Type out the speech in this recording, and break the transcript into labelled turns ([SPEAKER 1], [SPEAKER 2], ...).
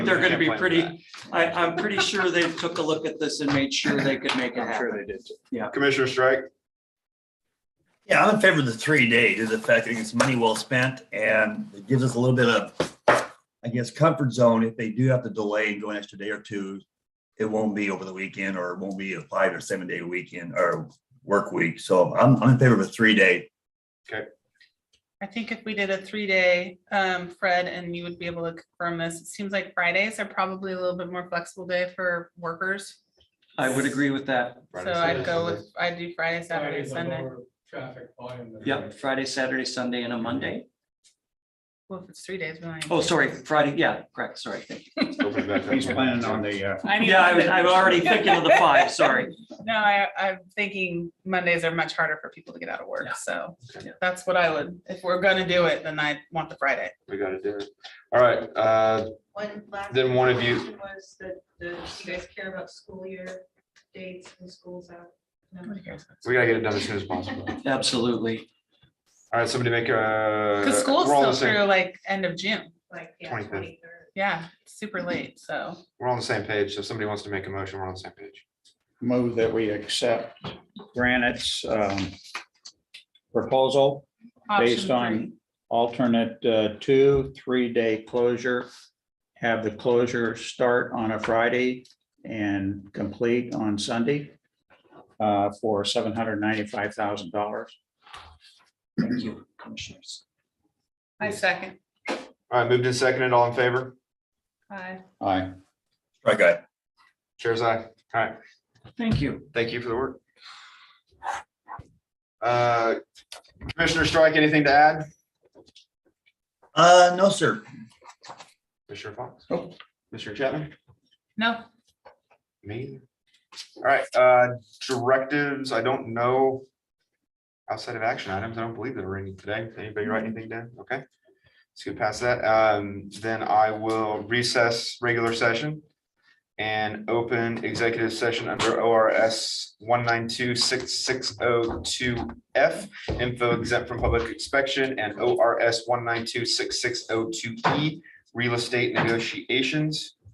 [SPEAKER 1] They're gonna be
[SPEAKER 2] Can't blame that.
[SPEAKER 1] pretty, I, I'm pretty sure they took a look at this and made sure they could make it
[SPEAKER 2] I'm sure
[SPEAKER 1] happen.
[SPEAKER 2] they did. too.
[SPEAKER 1] Yeah.
[SPEAKER 2] Commissioner Strike,
[SPEAKER 3] Yeah, I'm in favor of the three day due to the fact that it's money well spent and it gives us a little bit of, I guess, comfort zone. If they do have to delay and go an extra day or two, it won't be over the weekend or it won't be a five or seven day weekend or work week. So I'm, I'm in favor of a three day.
[SPEAKER 4] I think if we did a three day, um, Fred, and you would be able to confirm this, it seems like Fridays are probably a little bit more flexible day for workers.
[SPEAKER 1] I would agree with that.
[SPEAKER 4] So
[SPEAKER 2] Friday,
[SPEAKER 4] I'd
[SPEAKER 2] Saturday,
[SPEAKER 4] go
[SPEAKER 2] Sunday.
[SPEAKER 4] with, I'd do Friday, Saturday,
[SPEAKER 5] Friday's a
[SPEAKER 4] Sunday.
[SPEAKER 5] lower Traffic volume. than-
[SPEAKER 1] Yep, Friday, Saturday, Sunday and a Monday.
[SPEAKER 4] Well, if it's three days, we don't.
[SPEAKER 1] Oh, sorry, Friday, yeah, correct, sorry.
[SPEAKER 2] Open back up.
[SPEAKER 6] He's planning on the, uh,
[SPEAKER 4] I need-
[SPEAKER 1] Yeah, I was, I'm already thinking of the five, sorry.
[SPEAKER 4] No, I, I'm thinking Mondays are much harder for people to get out of work, so that's what I would, if we're gonna do it, then I want the Friday.
[SPEAKER 2] We gotta do it. All right, uh,
[SPEAKER 7] One last.
[SPEAKER 2] Then one of you-
[SPEAKER 7] question Was that, the you guys care about school year dates and schools out?
[SPEAKER 2] Uh,
[SPEAKER 7] No?
[SPEAKER 4] Nobody cares.
[SPEAKER 2] we gotta get it done as soon as possible.
[SPEAKER 1] Absolutely.
[SPEAKER 2] All right, somebody make a.
[SPEAKER 4] Cause school's
[SPEAKER 2] we're all on
[SPEAKER 4] still
[SPEAKER 2] the same-
[SPEAKER 4] through like end of June,
[SPEAKER 7] Like, yeah,
[SPEAKER 2] 25th.
[SPEAKER 7] twenty-third.
[SPEAKER 4] yeah, super late, so.
[SPEAKER 2] We're all on the same page. So if somebody wants to make a motion, we're on the same page.
[SPEAKER 6] move that we accept Granite's um, proposal
[SPEAKER 4] option
[SPEAKER 6] based
[SPEAKER 4] three.
[SPEAKER 6] on alternate uh, two, three-day closure. Have the closure start on a Friday and complete on Sunday uh, for $795,000.
[SPEAKER 1] Thank you, commissioners.
[SPEAKER 4] I second.
[SPEAKER 2] All right, moved and seconded, all in favor?
[SPEAKER 4] Aye.
[SPEAKER 6] Aye.
[SPEAKER 3] Right, guy.
[SPEAKER 2] Chairs aye. All right,
[SPEAKER 1] Thank you.
[SPEAKER 2] thank you for the work. Uh, Commissioner Strike, anything to add?
[SPEAKER 3] Uh, no, sir.
[SPEAKER 2] Commissioner Fox? Mr. Chapman?
[SPEAKER 4] No,
[SPEAKER 2] Me? All right, uh, directives, I don't know. Outside of action items, I don't believe there were any today. Anybody write anything down? Okay. Let's get past that. Um, then I will recess regular session. And open executive session under ORS one nine two six six oh two F. Info exempt from public inspection and ORS one nine two six six oh two E. Real estate negotiations.